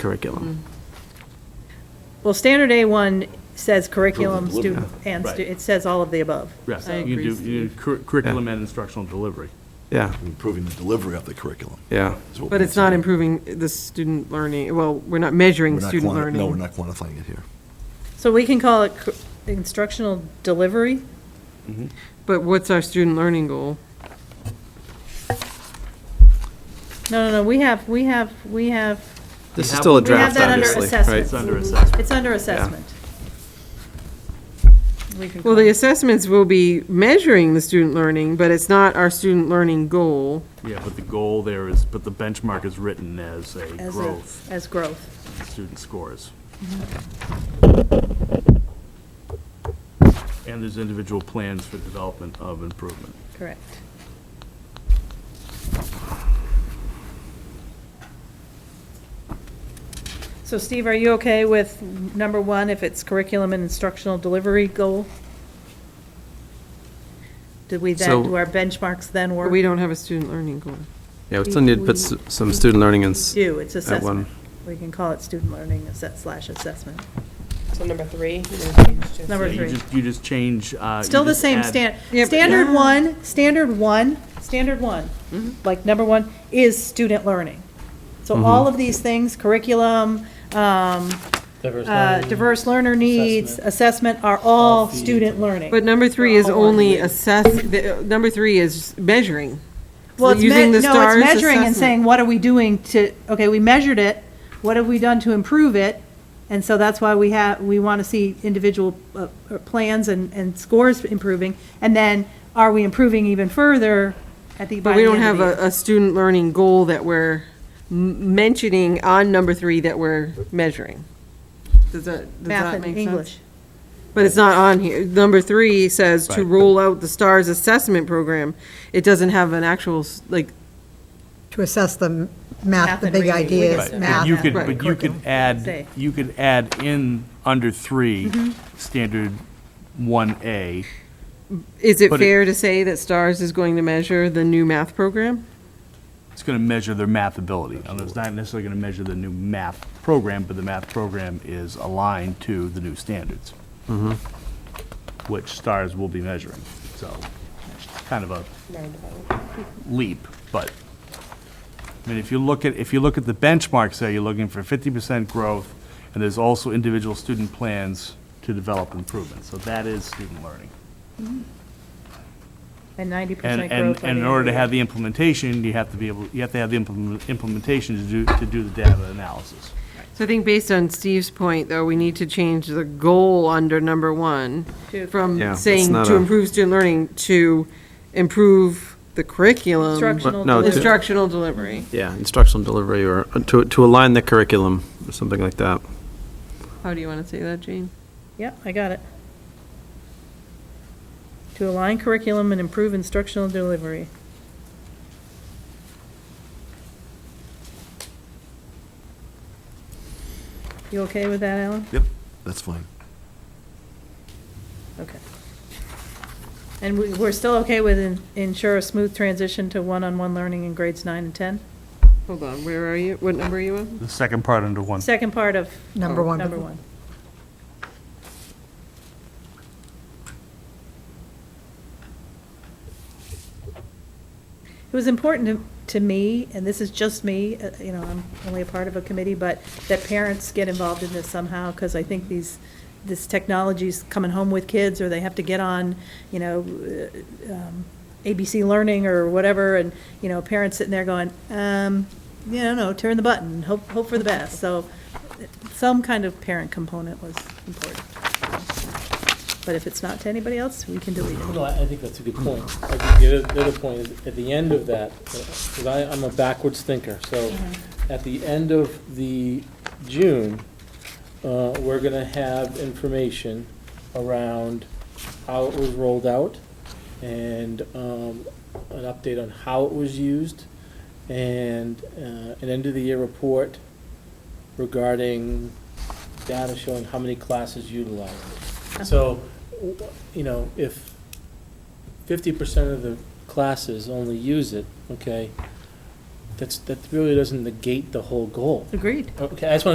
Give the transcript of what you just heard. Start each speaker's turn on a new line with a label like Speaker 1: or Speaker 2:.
Speaker 1: curriculum.
Speaker 2: Well, standard A1 says curriculum,
Speaker 3: Curriculum.
Speaker 2: student, and, stu-
Speaker 4: Right.
Speaker 2: it says all of the above.
Speaker 4: Yes,
Speaker 2: I
Speaker 4: you
Speaker 2: agree,
Speaker 4: do- you do cur- curriculum and instructional delivery.
Speaker 1: Yeah,
Speaker 3: improving the delivery of the curriculum.
Speaker 1: yeah.
Speaker 3: is what
Speaker 5: But
Speaker 3: we
Speaker 5: it's not
Speaker 3: said.
Speaker 5: improving the student learning, well, we're not
Speaker 3: We're
Speaker 5: measuring
Speaker 3: not
Speaker 5: student
Speaker 3: quanti-
Speaker 5: learning.
Speaker 3: No, we're not quantifying it here.
Speaker 2: So we can call it cur- instructional delivery?
Speaker 5: But what's our student learning goal?
Speaker 2: No, no, no, we have, we have, we have,
Speaker 1: This is
Speaker 4: have-
Speaker 1: still a
Speaker 4: We
Speaker 2: we have
Speaker 1: draft,
Speaker 2: that under
Speaker 1: obviously,
Speaker 2: assessment.
Speaker 4: It's
Speaker 1: right?
Speaker 4: under assessment.
Speaker 2: It's under assessment. We can
Speaker 5: Well,
Speaker 2: call
Speaker 5: the
Speaker 2: it-
Speaker 5: assessments will be measuring the student learning, but it's not our student learning goal.
Speaker 4: Yeah, but the goal there is, but the benchmark is written as a
Speaker 2: as a-
Speaker 4: growth
Speaker 2: As growth.
Speaker 4: in student scores.
Speaker 2: Mm-hmm.
Speaker 4: And there's individual plans for development of improvement.
Speaker 2: Correct. So Steve, are you okay with number one, if it's curriculum and instructional delivery goal? Do we then,
Speaker 1: So-
Speaker 2: do our benchmarks then
Speaker 5: But
Speaker 2: work?
Speaker 5: we don't have a student learning goal.
Speaker 1: Yeah, we still need to put s- some student learning in. s-
Speaker 2: Do, it's
Speaker 1: at one.
Speaker 2: assessment. We can call it student learning asset slash assessment.
Speaker 6: So number three? you're gonna change to-
Speaker 2: Number
Speaker 4: Yeah,
Speaker 2: three.
Speaker 4: You just, you just change, uh. you
Speaker 2: Still the
Speaker 4: just
Speaker 2: same
Speaker 4: add-
Speaker 2: stand,
Speaker 5: Yeah, but-
Speaker 2: standard one, standard one, standard one,
Speaker 4: Mm-hmm.
Speaker 2: like number one, is student learning. So all of these things, curriculum, um, uh, diverse learner needs, assessment, are all student learning.
Speaker 5: But number three is only assess, the- uh, number three is measuring.
Speaker 2: Well, it's me-
Speaker 5: using the
Speaker 2: No, it's
Speaker 5: STARS
Speaker 2: measuring and
Speaker 5: assessment.
Speaker 2: saying, what are we doing to, okay, we measured it, what have we done to improve it? And so that's why we have, we want to see individual uh, uh, plans and, and scores improving. And then, are we improving even further at the, by
Speaker 5: But
Speaker 2: the
Speaker 5: we
Speaker 2: end
Speaker 5: don't
Speaker 2: of
Speaker 5: have
Speaker 2: the year?
Speaker 5: a, a student learning goal that we're m- mentioning on number three that we're measuring. Does that, does
Speaker 2: Math
Speaker 5: that
Speaker 2: and
Speaker 5: make sense?
Speaker 2: English.
Speaker 5: But it's not on here. Number three says to
Speaker 4: Right.
Speaker 5: roll out the STARS assessment program. It doesn't have an actual, s- like,
Speaker 7: To assess the
Speaker 2: Math
Speaker 7: math, the
Speaker 2: and
Speaker 7: big
Speaker 2: reading. We
Speaker 7: ideas,
Speaker 2: could-
Speaker 4: But
Speaker 7: math.
Speaker 4: You could,
Speaker 5: Right.
Speaker 4: but you could
Speaker 2: Say.
Speaker 4: add, you could add in, under three,
Speaker 2: Mm-hmm.
Speaker 4: standard one A.
Speaker 5: is it
Speaker 4: But it-
Speaker 5: fair to say that STARS is going to measure the new math program?
Speaker 4: It's going to measure their math ability. And it's not necessarily going to measure the new math program, but the math program is aligned to the new standards, which STARS will be measuring. So it's kind of a leap, but, I mean, if you look at, if you look at the benchmarks there, you're looking for 50% growth, and there's also individual student plans to develop improvement. So that is student learning.
Speaker 2: And ninety percent
Speaker 4: And,
Speaker 2: growth.
Speaker 4: and,
Speaker 2: by
Speaker 4: and
Speaker 2: the
Speaker 4: in
Speaker 2: end
Speaker 4: order to
Speaker 2: of the
Speaker 4: have the implementation, you have to be able, you have to have the implement- implementation to do, to do the data analysis.
Speaker 5: So I think based on Steve's point, though, we need to change the goal under number one
Speaker 2: To-
Speaker 1: Yeah,
Speaker 5: from
Speaker 1: it's
Speaker 5: saying
Speaker 1: not
Speaker 5: to
Speaker 1: a-
Speaker 5: improve student learning to improve the curriculum.
Speaker 2: Instructional
Speaker 1: no, to-
Speaker 2: delivery.
Speaker 5: Instructional delivery.
Speaker 1: Yeah, instructional delivery or uh, to, to align the curriculum or something like that.
Speaker 5: How do you want to say that, Jane?
Speaker 2: Yep, I got it. To align curriculum and improve instructional delivery. You okay with that, Alan?
Speaker 3: Yep, that's fine.
Speaker 2: Okay. And we, we're still okay with en- ensure a smooth transition to one-on-one learning in grades nine and 10?
Speaker 5: Hold on, where are you? What number are you on?
Speaker 4: The second part under one.
Speaker 2: Second part of
Speaker 7: Number one.
Speaker 2: number one. It was important to, to me, and this is just me, uh, you know, I'm only a part of a committee, but that parents get involved in this somehow, because I think these, this technology's coming home with kids, or they have to get on, you know, uh, um, ABC Learning or whatever, and, you know, parents sitting there going, um, you know, no, turn the button, hope, hope for the best, so some kind of parent component was important. But if it's not to anybody else, we can delete it.
Speaker 8: No, I I think that's a good point. I think the other, the other point is, at the end of that, because I, I'm a backwards thinker, so at the end of the June, uh, we're gonna have information around how it was rolled out and, um, an update on how it was used and, uh, an end of the year report regarding data showing how many classes utilized. it. So, w- you know, if fifty percent of the classes only use it, okay, that's, that really doesn't negate the whole goal.
Speaker 2: Agreed.
Speaker 8: Okay, I just wanna